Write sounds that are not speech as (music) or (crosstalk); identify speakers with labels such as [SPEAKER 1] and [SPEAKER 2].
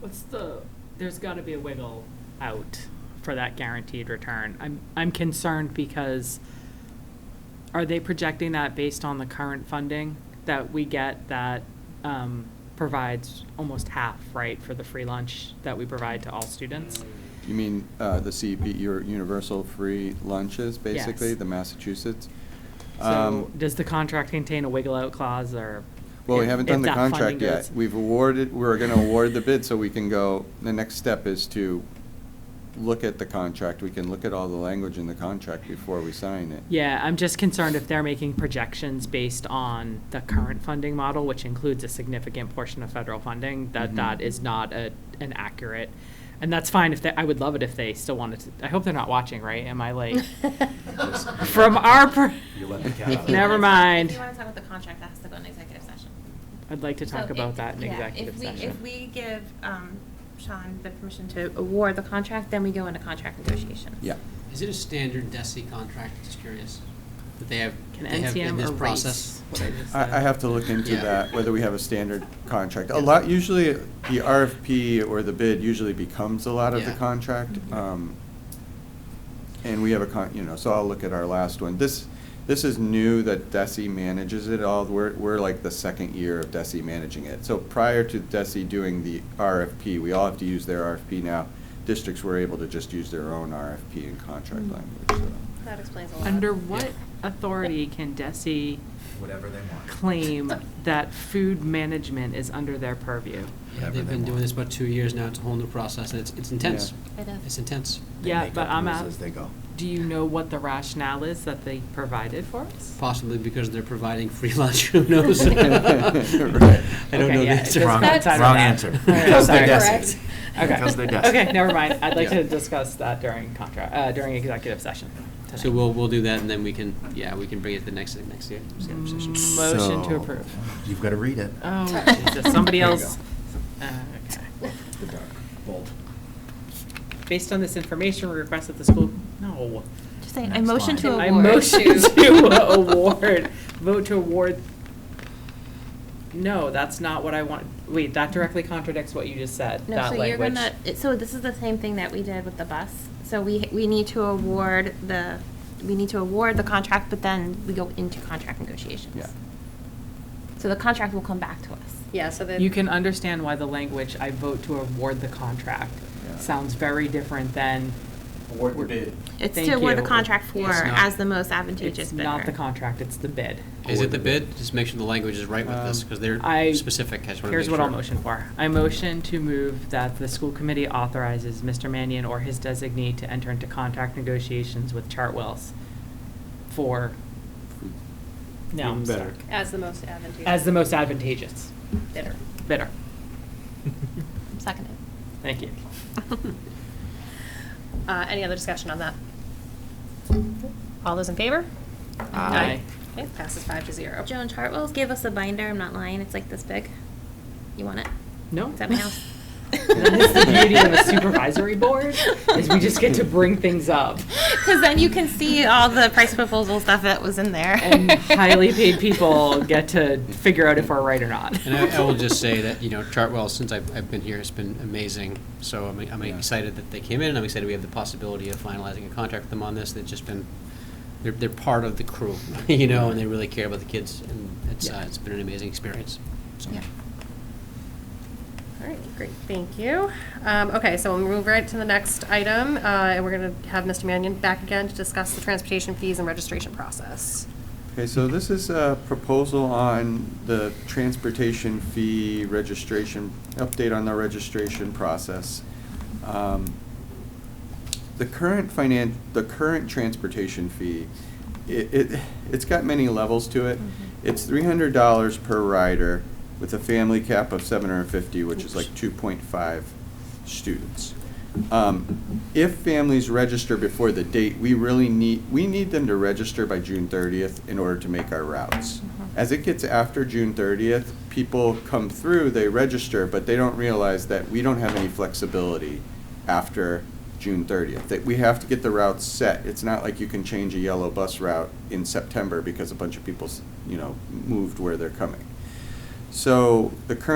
[SPEAKER 1] What's the, there's got to be a wiggle out for that guaranteed return. I'm, I'm concerned because are they projecting that based on the current funding that we get that um, provides almost half, right, for the free lunch that we provide to all students?
[SPEAKER 2] You mean uh, the CEP, your universal free lunches, basically,
[SPEAKER 1] Yes.
[SPEAKER 2] the Massachusetts?
[SPEAKER 1] So
[SPEAKER 2] Um,
[SPEAKER 1] does the contract contain a wiggle out clause or?
[SPEAKER 2] Well, we
[SPEAKER 1] if-
[SPEAKER 2] haven't
[SPEAKER 1] if
[SPEAKER 2] done the
[SPEAKER 1] that funding
[SPEAKER 2] contract yet.
[SPEAKER 1] goes-
[SPEAKER 2] We've awarded, we're going to award the bid, so we can go, the next step is to look at the contract. We can look at all the language in the contract before we sign it.
[SPEAKER 1] Yeah, I'm just concerned if they're making projections based on the current funding model, which includes a significant portion of federal funding, that
[SPEAKER 3] Mm-hmm.
[SPEAKER 2] Mhm.
[SPEAKER 1] that is not a, an accurate. And that's fine if they, I would love it if they still wanted to, I hope they're not watching, right? Am
[SPEAKER 4] (laughs)
[SPEAKER 1] I like, from our, per-
[SPEAKER 5] You let the cat
[SPEAKER 1] (laughs)
[SPEAKER 5] out.
[SPEAKER 1] never mind.
[SPEAKER 4] If you want to talk about the contract, that has to go in executive session.
[SPEAKER 1] I'd like to talk
[SPEAKER 4] So
[SPEAKER 1] about
[SPEAKER 4] if-
[SPEAKER 1] that in
[SPEAKER 4] yeah,
[SPEAKER 1] executive
[SPEAKER 4] If we, if
[SPEAKER 1] session.
[SPEAKER 4] we give um, Sean the permission to award the contract, then we go into contract negotiations.
[SPEAKER 2] Yeah.
[SPEAKER 3] Is it a standard DESI contract, just curious, that they have,
[SPEAKER 1] Can
[SPEAKER 3] they have in
[SPEAKER 1] NTM
[SPEAKER 3] this
[SPEAKER 1] erase
[SPEAKER 3] process?
[SPEAKER 1] what I just
[SPEAKER 2] I, I
[SPEAKER 1] said?
[SPEAKER 2] have to look into
[SPEAKER 3] Yeah.
[SPEAKER 2] that, whether we have a standard contract. A lot, usually, the RFP or the bid usually becomes a lot of the
[SPEAKER 3] Yeah. Mm-hmm.
[SPEAKER 2] contract. um, And we have a con, you know, so I'll look at our last one. This, this is new that DESI manages it all. We're, we're like the second year of DESI managing it. So prior to DESI doing the RFP, we all have to use their RFP now. Districts were able to just use their own RFP and contract
[SPEAKER 1] Mm.
[SPEAKER 3] Mm-hmm.
[SPEAKER 2] language, so.
[SPEAKER 4] That explains a lot.
[SPEAKER 1] Under
[SPEAKER 3] Yeah.
[SPEAKER 1] what authority can DESI
[SPEAKER 5] Whatever they
[SPEAKER 4] (laughs)
[SPEAKER 5] want.
[SPEAKER 1] claim that food management is under their purview?
[SPEAKER 3] Yeah,
[SPEAKER 5] Whatever
[SPEAKER 3] they've
[SPEAKER 5] they
[SPEAKER 3] been doing
[SPEAKER 5] want.
[SPEAKER 3] this about two years now, it's a whole new process, and it's, it's intense.
[SPEAKER 4] Yeah. It is.
[SPEAKER 3] It's intense.
[SPEAKER 5] They
[SPEAKER 1] Yeah,
[SPEAKER 5] make
[SPEAKER 1] but
[SPEAKER 5] up
[SPEAKER 1] I'm
[SPEAKER 5] rules
[SPEAKER 1] out.
[SPEAKER 5] As they go.
[SPEAKER 1] Do you know what the rationale is that they provided for us?
[SPEAKER 3] Possibly because they're providing free (laughs) lunch, who knows? (laughs) I
[SPEAKER 2] (laughs) Right.
[SPEAKER 3] don't
[SPEAKER 1] Okay,
[SPEAKER 3] know the
[SPEAKER 1] yeah, it
[SPEAKER 3] answer.
[SPEAKER 1] does
[SPEAKER 5] Wrong-
[SPEAKER 1] not
[SPEAKER 3] (laughs)
[SPEAKER 1] sound
[SPEAKER 5] wrong
[SPEAKER 1] bad.
[SPEAKER 5] answer.
[SPEAKER 1] All right,
[SPEAKER 5] Because they're
[SPEAKER 1] sorry.
[SPEAKER 5] desperate.
[SPEAKER 1] Okay. (laughs)
[SPEAKER 5] Because they're desperate.
[SPEAKER 1] Okay, never mind. I'd like
[SPEAKER 3] Yeah.
[SPEAKER 1] to discuss that during contra, uh, during executive session tonight.
[SPEAKER 3] So we'll, we'll do that, and then we can, yeah, we can bring it the next, next year, executive session.
[SPEAKER 1] Mm. Motion to
[SPEAKER 5] So,
[SPEAKER 1] approve.
[SPEAKER 5] You've got to read it.
[SPEAKER 1] Oh, Jesus, somebody
[SPEAKER 5] There you
[SPEAKER 1] else. Uh, okay.
[SPEAKER 5] Bold.
[SPEAKER 1] Based on this information, we request that the school, no.
[SPEAKER 4] (laughs) Just saying, I
[SPEAKER 5] Next
[SPEAKER 4] motion
[SPEAKER 5] line.
[SPEAKER 4] to award.
[SPEAKER 1] I motion
[SPEAKER 4] (laughs)
[SPEAKER 1] to (laughs) award, vote to award. No, that's not what I want. Wait, that directly contradicts what you just said,
[SPEAKER 4] No,
[SPEAKER 1] that
[SPEAKER 4] so
[SPEAKER 1] language.
[SPEAKER 4] you're gonna, it- so this is the same thing that we did with the bus. So we, we need to award the, we need to award the contract, but then we go into contract negotiations.
[SPEAKER 2] Yeah.
[SPEAKER 4] So the contract will come back to us.
[SPEAKER 6] Yeah, so the.
[SPEAKER 1] You can understand why the language, I vote to award the contract,
[SPEAKER 2] Yeah.
[SPEAKER 1] sounds very different than.
[SPEAKER 5] Award
[SPEAKER 1] the bid.
[SPEAKER 4] It's
[SPEAKER 1] Thank
[SPEAKER 4] to award the
[SPEAKER 1] you.
[SPEAKER 4] contract for
[SPEAKER 3] It's not-
[SPEAKER 4] as the most advantageous
[SPEAKER 1] It's
[SPEAKER 4] bidder.
[SPEAKER 1] not the contract, it's the bid.
[SPEAKER 3] Is it the bid? Just make sure the language is right with this, because they're
[SPEAKER 1] Um, I-
[SPEAKER 3] specific, I just want to make sure.
[SPEAKER 1] Here's what I'll motion for. I motion to move that the school committee authorizes Mr. Mannion or his designee to enter into contract negotiations with Chartwells for, no, I'm
[SPEAKER 2] Even better.
[SPEAKER 1] stuck.
[SPEAKER 6] As the most advantageous.
[SPEAKER 1] As the most advantageous
[SPEAKER 6] Bidder.
[SPEAKER 1] bidder.
[SPEAKER 4] Seconded.
[SPEAKER 1] Thank you.
[SPEAKER 6] Uh, any other discussion on that? All those in favor?
[SPEAKER 1] Aye.
[SPEAKER 6] Okay, passes five to zero.
[SPEAKER 4] Joan Chartwell's gave us a binder, I'm not lying, it's like this big. You want it?
[SPEAKER 1] No?
[SPEAKER 4] It's at
[SPEAKER 1] (laughs)
[SPEAKER 4] my house.
[SPEAKER 1] That is the beauty of a supervisory board, is we just get to bring things up.
[SPEAKER 4] (laughs) Because then you can see all the price proposal stuff that was in there.
[SPEAKER 1] And highly
[SPEAKER 4] (laughs)
[SPEAKER 1] paid people get to figure out if we're right or not.
[SPEAKER 3] And I, I will just say that, you know, Chartwell, since I've, I've been here, it's been amazing. So I'm, I'm
[SPEAKER 2] Yeah.
[SPEAKER 3] excited that they came in, and I'm excited we have the possibility of finalizing a contract with them on this. They've just been, they're, they're part of the crew, (laughs) you know, and they really care about the kids, and it's, uh,
[SPEAKER 1] Yeah.
[SPEAKER 3] it's been an amazing experience. So,
[SPEAKER 4] Yeah.
[SPEAKER 6] All right, great, thank you. Um, okay, so we'll move right to the next item, uh, and we're gonna have Mr. Mannion back again to discuss the transportation fees and registration process.
[SPEAKER 2] Okay, so this is a proposal on the transportation fee registration, update on the registration process. Um, The current finan, the current transportation fee, it, it, it's got many levels to it.
[SPEAKER 4] Mhm.
[SPEAKER 2] It's three hundred dollars per rider with a family cap of seven hundred and fifty, which is like two point five students. Um, If families register before the date, we really need, we need them to register by June thirtieth in order to make our routes. As it gets after June thirtieth, people come through, they register, but they don't realize that we don't have any flexibility after June thirtieth, that we have to get the routes set. It's not like you can change a yellow bus route in September because a bunch of people, s- you know, moved where they're coming. So the current